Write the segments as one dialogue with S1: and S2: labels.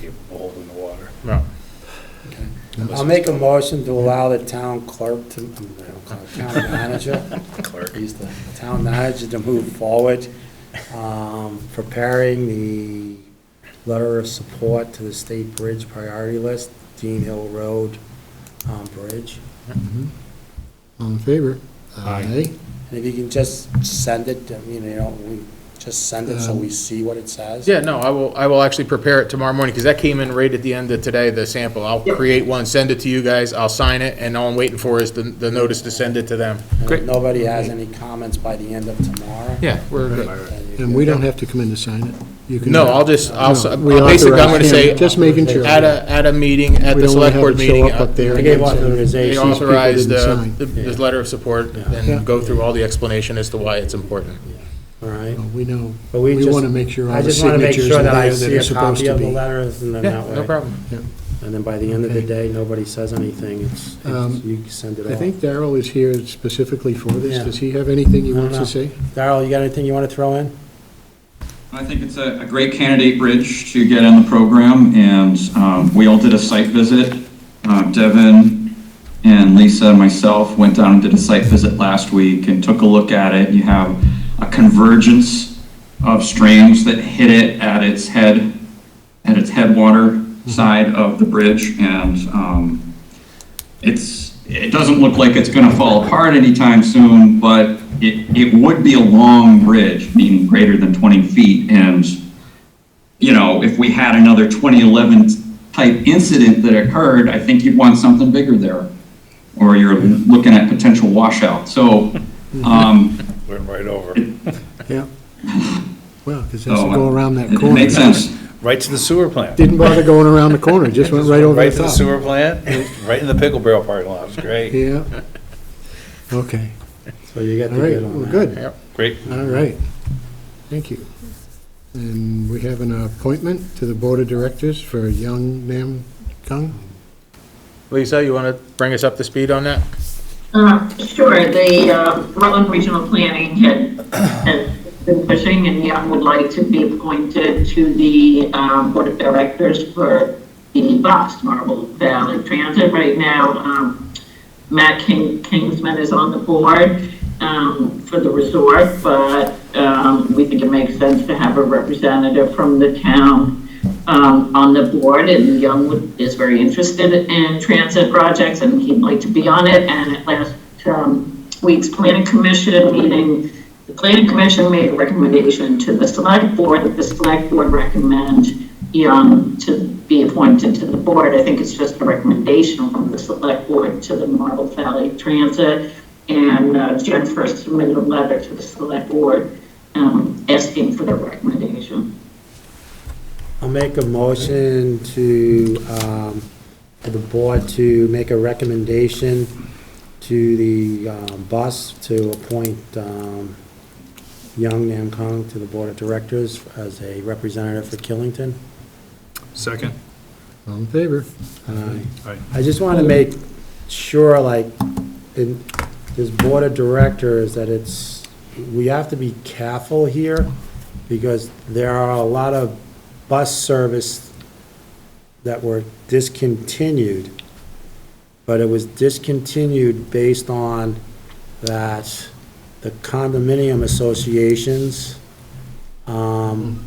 S1: get boiled in the water.
S2: Right.
S3: I'll make a motion to allow the town clerk to, um, I don't call it, town manager,
S1: Clerk.
S3: he's the town manager to move forward, um, preparing the letter of support to the state bridge priority list, Dean Hill Road, um, bridge.
S4: Mm-hmm. All in favor?
S2: Aye.
S3: And if you can just send it, I mean, you know, we, just send it so we see what it says.
S2: Yeah, no, I will, I will actually prepare it tomorrow morning, because that came in right at the end of today, the sample. I'll create one, send it to you guys, I'll sign it, and all I'm waiting for is the, the notice to send it to them.
S3: And if
S2: Great.
S3: nobody has any comments by the end of tomorrow.
S2: Yeah, we're good.
S3: then you
S4: And we don't have to come in to sign it? You can-
S2: No, I'll just, I'll, s-
S4: No, we
S2: basically, I'm gonna
S4: authorize
S2: say,
S4: him, Just making sure.
S2: at a, at a meeting, at
S4: We
S2: the
S4: don't wanna
S2: select board
S4: have him show
S2: meeting,
S4: up up there
S3: I
S2: uh,
S3: gave
S4: and say,
S2: they
S3: authorization.
S4: people
S2: authorize
S4: didn't
S2: the,
S4: sign.
S2: the- this letter of support,
S4: Yeah.
S2: and go through all the explanation as to why it's important.
S3: All right.
S4: Well, We know,
S3: But we
S4: we
S3: just-
S4: want to make sure all
S3: I
S4: the
S3: just want to make
S4: signatures
S3: sure
S4: are
S3: that I
S4: there that
S3: see
S4: are
S3: a copy
S4: supposed to
S3: of the
S4: be.
S3: letters and then
S2: Yeah,
S3: that
S2: no
S3: way.
S2: problem.
S3: And then by the end of the day,
S4: Okay.
S3: nobody says anything. It's, it's-
S4: Um,
S3: you can send it
S4: I
S3: off.
S4: think Darrell is here specifically for this.
S3: Yeah.
S4: Does he have anything he
S3: I don't
S4: wants
S3: know.
S4: to say?
S3: Darrell, you got anything you want to throw in?
S5: I think it's a, a great candidate bridge to get in the program, and um, we all did a site visit. Uh, Devin and Lisa and myself went down and did a site visit last week and took a look at it. You have a convergence of streams that hit it at its head, at its headwater side of the bridge, and um, it's, it doesn't look like it's going to fall apart anytime soon, but it, it would be a long bridge, meaning greater than 20 feet. And, you know, if we had another 2011 type incident that occurred, I think you'd want something bigger there. Or you're looking at potential washout. So, um,
S1: Went right over.
S4: Yeah. Well, because it has to
S5: so
S4: go around that
S5: Oh, it-
S4: corner.
S5: It makes sense.
S1: Right to the sewer plant.
S4: Didn't bother going around the corner, just went right over
S1: Right
S4: the
S1: to the
S4: top.
S1: sewer plant, right in the pickle barrel parking lot. It's great.
S4: Yeah. Okay,
S3: So you got
S4: all
S3: the
S4: right,
S3: good on
S4: well,
S3: that.
S4: good.
S1: Great.
S4: All right, thank you. And we have an appointment to the Board of Directors for Young Nam Kung.
S2: Lisa, you wanna bring us up to speed on that?
S6: Uh, Sure, the uh, Rutland Regional Planning had has been pushing, and Young would like to be appointed to the um, Board of Directors for the Box Marble Valley Transit. Right now, um, Matt King- Kingsman is on the board um, for the resort, but um, we think it makes sense to have a representative from the town um, on the board, and Young would- is very interested in transit projects, and he'd like to be on it. And at last um, week's planning commission meeting, the planning commission made a recommendation to the select board, that the select board recommend Young to be appointed to the board. I think it's just a recommendation from the select board to the Marble Valley Transit. And uh, Jen first submitted a letter to the select board um, asking for the recommendation.
S3: I'll make a motion to, um, for the board to make a recommendation to the, um, bus to appoint, um, Young Nam Kong to the Board of Directors as a representative for Killington.
S1: Second.
S4: All in favor?
S3: Aye.
S1: Aye.
S3: I just want to make sure, like, in this board of directors, that it's, we have to be careful here, because there are a lot of bus service that were discontinued, but it was discontinued based on that the condominium associations um,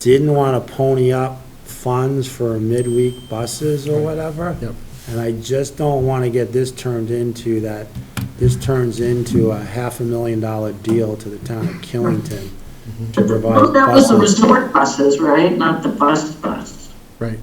S3: didn't want to pony up funds for midweek buses or whatever.
S4: Yep.
S3: And I just don't want to get this turned into that, this turns into a half a million dollar deal to the town of Killington to
S6: Well,
S3: provide
S6: that was the
S3: buses.
S6: resort buses, right? Not the bus bus.
S4: Right.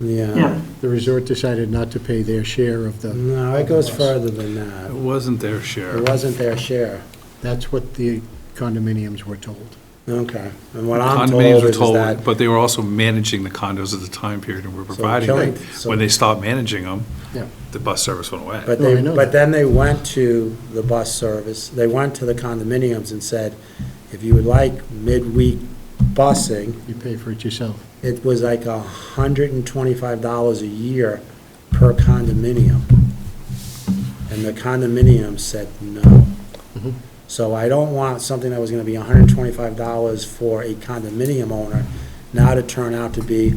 S3: Yeah.
S4: The resort decided not to pay their share of the,
S3: No, it goes further than that.
S1: It wasn't their
S3: It
S1: share.
S3: wasn't their share.
S4: that's what the condominiums were told.
S3: Okay. And what I'm told
S7: Condominiums were
S3: is is that,
S7: told, but they were also managing the condos at the time period and were providing
S3: killing-
S7: them.
S3: so-
S7: When they stopped managing them,
S4: Yeah.
S7: the bus service went away.
S3: but
S4: No, I
S3: they,
S4: know
S3: but
S4: that.
S3: then they went to the bus service, they went to the condominiums and said, if you would like midweek busing,
S4: You pay for it yourself.
S3: it was like a hundred and twenty-five dollars a year per condominium. And the condominium said no.
S4: Mhm.
S3: So I don't want something that was gonna be hundred and twenty-five dollars for a condominium owner now to turn out to be